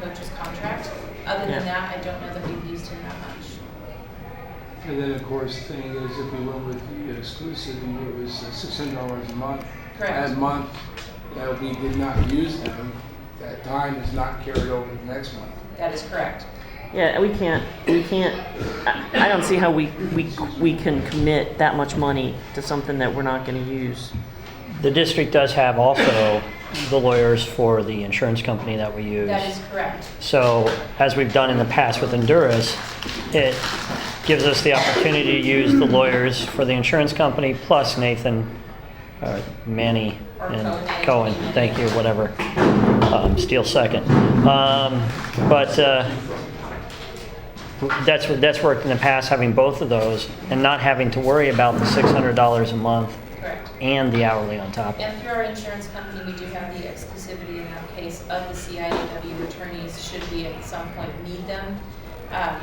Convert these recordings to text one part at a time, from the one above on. purchase contract. Other Yeah. than that, I don't know that we've used him that much. And then, of course, thing is, if we went with the exclusive, it was uh, six hundred dollars a month. Correct. That month that we did not use them, that time is not carried over to the next month. That is correct. Yeah, we can't, we can't, I, I don't see how we, we, we can commit that much money to something that we're not gonna use. The district does have also the lawyers for the insurance company that we use. That is correct. So, as we've done in the past with Honduras, it gives us the opportunity to use the lawyers for the insurance company plus Nathan, uh, Manny, Or and Cohen. Cohen. Thank you, whatever. Um, Steele second. Um, but uh, that's that's worked in the past having both of those and not having to worry about the six hundred dollars a month Correct. and the hourly on top. of it. And through our insurance company, we do have the exclusivity in that case of the CIAW attorneys, should we at some point need them. Um,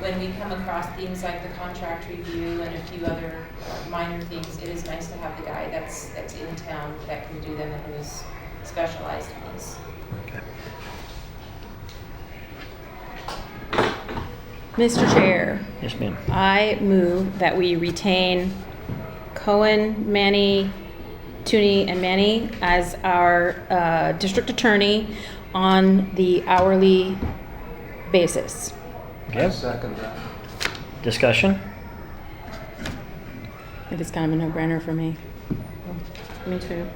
When we come across things like the contract review and a few other uh, minor things, it is nice to have the guy that's, that's in town that can do them and who is specialized in these. Mr. Chair, Yes, ma'am. I move that we retain Cohen, Manny, Tooney, and Manny as our uh, district attorney on the hourly basis. Okay. Second that. Discussion. I think it's kind of a no-brainer for me. Me too.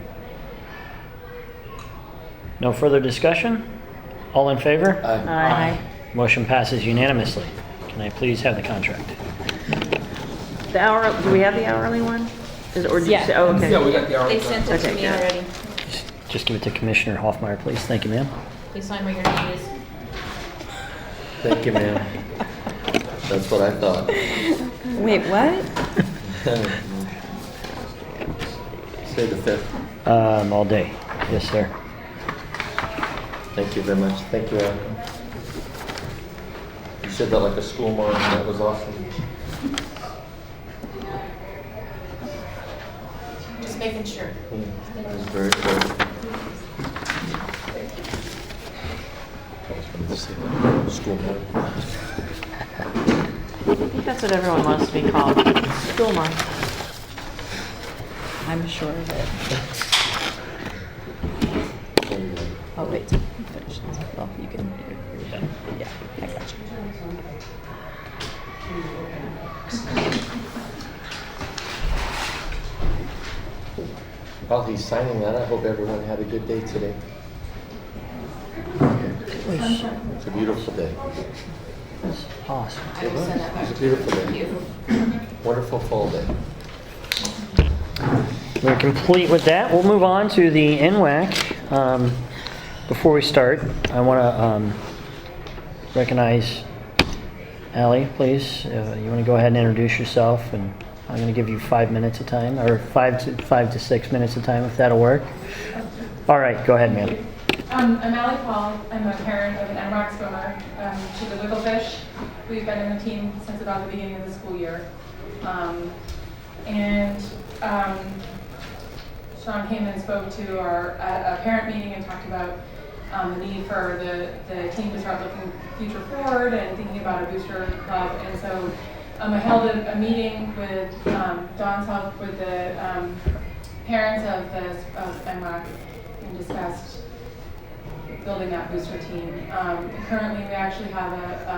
No further discussion? All in favor? Aye. Motion passes unanimously. Can I please have the contract? The hour, do we have the hourly one? Is, or did you Yeah. say, oh, okay. Yeah, we got the hour. They sent it to me Okay, good. already. Just- Just give it to Commissioner Hoffmeyer, please. Thank you, ma'am. Please sign where your name is. Thank you, ma'am. That's what I thought. Wait, what? Say the fifth. Um, all day. Yes, sir. Thank you very much. Thank you, Aaron. You said that like a school mom. That was awesome. Just making sure. Yeah, That was very cool. School mom. I think that's what everyone wants to be called, school mom. I'm sure of it. Oh, wait. Finish. this. Well, you can. You're done. Yeah, I got you. While he's signing that, I hope everyone had a good day today. It's a beautiful day. That's Awesome. I will send that back It's a to beautiful day. you. Wonderful fall day. We're complete with that. We'll move on to the NWAC. Um, before we start, I want to um, recognize Ally, please. Uh, you want to go ahead and introduce yourself, and I'm going to give you five minutes of time, or five to five to six minutes of time, if that'll work. All right, go ahead, ma'am. Um, I'm Ally Paul. I'm a parent of an MROC swimmer. Um, she's a wigglefish. We've been in the team since about the beginning of the school year. Um, and um, Sean came and spoke to our uh, a parent meeting and talked about um, the need for the, the team to start looking future forward and thinking about a booster club. And so um, I held a, a meeting with um, Don's help with the um, parents of the of MROC and discussed building that booster team. Um, currently, we actually have a,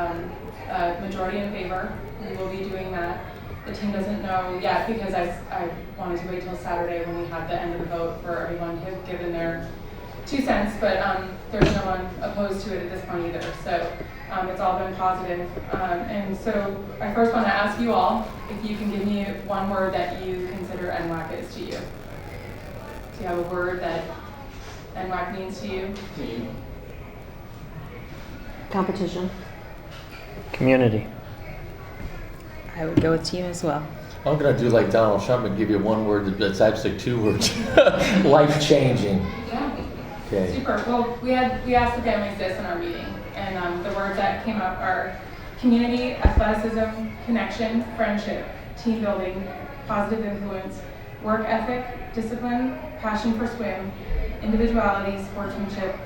um, a majority in favor. We will be doing that. The team doesn't know yet because I, I wanted to wait till Saturday when we had the end of the vote for everyone to have given their two cents, but um, there's no one opposed to it at this point either. So um, it's all been positive. Um, and so I first want to ask you all if you can give me one word that you consider NWAC is to you. Do you have a word that NWAC means to you? Team. Competition. Community. I would go with team as well. I'm gonna do like Donald Trump and give you one word that's actually two words. Life changing. Yeah. Okay. Super. Well, we had, we asked the families this in our meeting, and um, the words that came up are community, athleticism, connection, friendship, team building, positive influence, work ethic, discipline, passion for swim, individuality, sportsmanship,